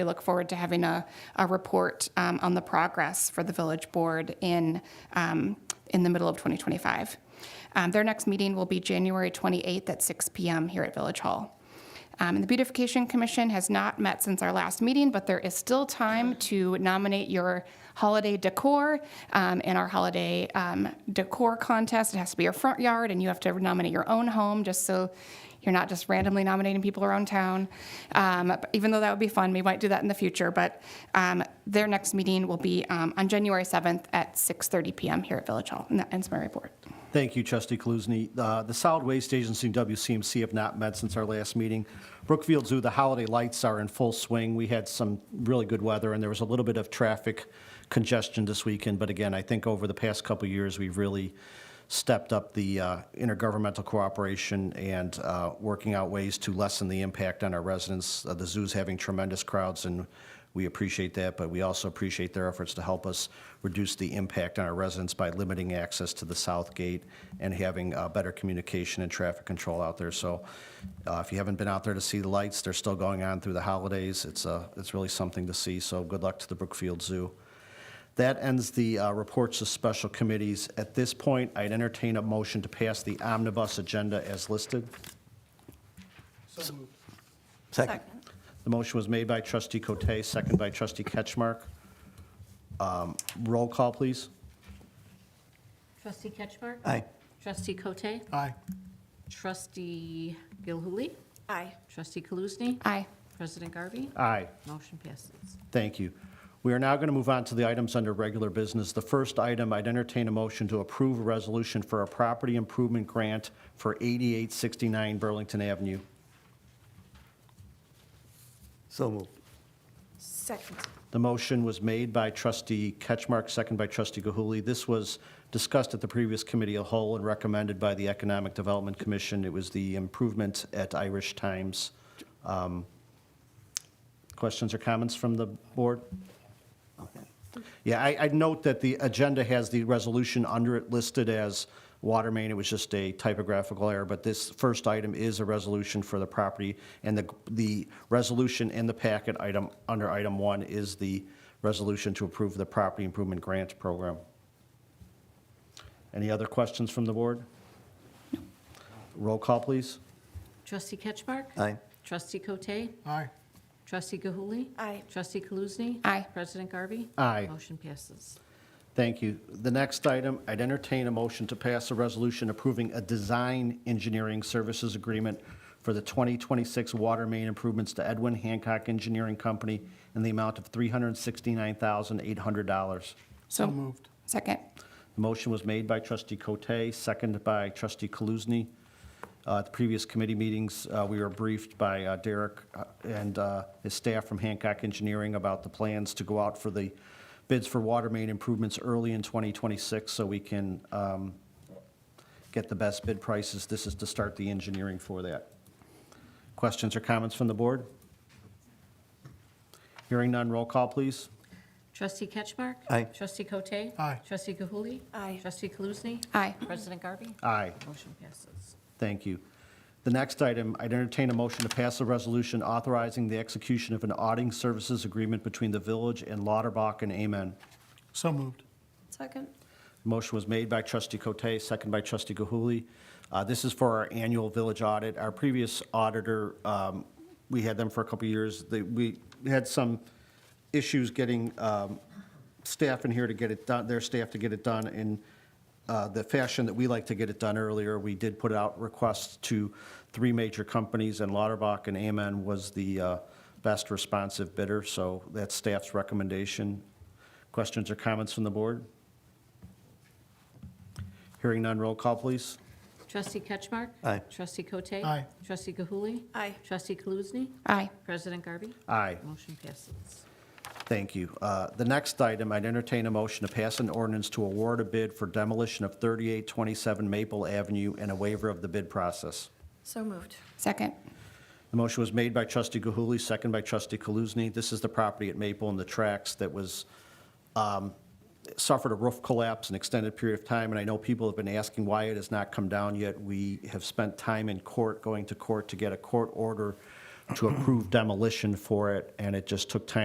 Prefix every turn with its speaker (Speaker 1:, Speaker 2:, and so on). Speaker 1: We look forward to having a, a report um, on the progress for the village board in, um, in the middle of 2025. Um, Their next meeting will be January 28th at 6 PM here at Village Hall. Um, And the Beautification Commission has not met since our last meeting, but there is still time to nominate your holiday decor um, in our holiday um, decor contest. It has to be your front yard, and you have to nominate your own home, just so you're not just randomly nominating people around town. Um, but Even though that would be fun, we might do that in the future, but um, their next meeting will be um, on January 7th at 6:30 PM here at Village Hall. And that ends my report.
Speaker 2: Thank you, Trustee Kaluzny. Uh, The solid waste agency and WCMC have not met since our last meeting. Brookfield Zoo, the holiday lights are in full swing. We had some really good weather, and there was a little bit of traffic congestion this weekend. But again, I think over the past couple of years, we've really stepped up the uh, intergovernmental cooperation and uh, working out ways to lessen the impact on our residents. Uh, The zoo's having tremendous crowds, and we appreciate that, but we also appreciate their efforts to help us reduce the impact on our residents by limiting access to the south gate and having uh, better communication and traffic control out there. So uh, if you haven't been out there to see the lights, they're still going on through the holidays. It's, uh, it's really something to see, so good luck to the Brookfield Zoo. That ends the uh, reports of special committees. At this point, I'd entertain a motion to pass the omnibus agenda as listed.
Speaker 3: Second.
Speaker 2: The motion was made by trustee Cote, second by trustee Ketchmark. Um, Roll call, please.
Speaker 4: Trustee Ketchmark?
Speaker 3: Aye.
Speaker 4: Trustee Cote?
Speaker 3: Aye.
Speaker 4: Trustee Gilhuli?
Speaker 5: Aye.
Speaker 4: Trustee Kaluzny?
Speaker 1: Aye.
Speaker 4: President Garvey?
Speaker 2: Aye.
Speaker 4: Motion passes.
Speaker 2: Thank you. We are now going to move on to the items under regular business. The first item, I'd entertain a motion to approve a resolution for a property improvement grant for 8869 Burlington Avenue.
Speaker 3: So moved.
Speaker 5: Second.
Speaker 2: The motion was made by trustee Ketchmark, second by trustee Gahuli. This was discussed at the previous committee of whole and recommended by the Economic Development Commission. It was the improvement at Irish Times. Um, Questions or comments from the board? Yeah, I, I note that the agenda has the resolution under it listed as water main. It was just a typographical error, but this first item is a resolution for the property. And the, the resolution in the packet item, under item one, is the resolution to approve the property improvement grant program. Any other questions from the board? Roll call, please.
Speaker 4: Trustee Ketchmark?
Speaker 3: Aye.
Speaker 4: Trustee Cote?
Speaker 3: Aye.
Speaker 4: Trustee Gilhuli?
Speaker 5: Aye.
Speaker 4: Trustee Kaluzny?
Speaker 1: Aye.
Speaker 4: President Garvey?
Speaker 2: Aye.
Speaker 4: Motion passes.
Speaker 2: Thank you. The next item, I'd entertain a motion to pass a resolution approving a design engineering services agreement for the 2026 water main improvements to Edwin Hancock Engineering Company in the amount of $369,800.
Speaker 1: So moved. Second.
Speaker 2: The motion was made by trustee Cote, seconded by trustee Kaluzny. Uh, At the previous committee meetings, uh, we were briefed by uh, Derek uh, and uh, his staff from Hancock Engineering about the plans to go out for the bids for water main improvements early in 2026 so we can um, get the best bid prices. This is to start the engineering for that. Questions or comments from the board? Hearing none, roll call, please.
Speaker 4: Trustee Ketchmark?
Speaker 3: Aye.
Speaker 4: Trustee Cote?
Speaker 3: Aye.
Speaker 4: Trustee Gilhuli?
Speaker 5: Aye.
Speaker 4: Trustee Kaluzny?
Speaker 1: Aye.
Speaker 4: President Garvey?
Speaker 2: Aye.
Speaker 4: Motion passes.
Speaker 2: Thank you. The next item, I'd entertain a motion to pass a resolution authorizing the execution of an auditing services agreement between the village and Lauterbach and Amen.
Speaker 3: So moved.
Speaker 5: Second.
Speaker 2: Motion was made by trustee Cote, second by trustee Gahuli. Uh, This is for our annual village audit. Our previous auditor, um, we had them for a couple of years. They- We had some issues getting um, staff in here to get it done, their staff to get it done in uh, the fashion that we like to get it done earlier. We did put out requests to three major companies, and Lauterbach and Amen was the uh, best responsive bidder, so that's staff's recommendation. Questions or comments from the board? Hearing none, roll call, please.
Speaker 4: Trustee Ketchmark?
Speaker 3: Aye.
Speaker 4: Trustee Cote?
Speaker 3: Aye.
Speaker 4: Trustee Gilhuli?
Speaker 5: Aye.
Speaker 4: Trustee Kaluzny?
Speaker 1: Aye.
Speaker 4: President Garvey?
Speaker 2: Aye.
Speaker 4: Motion passes.
Speaker 2: Thank you. Uh, The next item, I'd entertain a motion to pass an ordinance to award a bid for demolition of 3827 Maple Avenue and a waiver of the bid process.
Speaker 5: So moved.
Speaker 1: Second.
Speaker 2: The motion was made by trustee Gahuli, second by trustee Kaluzny. This is the property at Maple and the tracks that was, um, suffered a roof collapse an extended period of time, and I know people have been asking why it has not come down yet. We have spent time in court, going to court to get a court order to approve demolition for it, and it just took time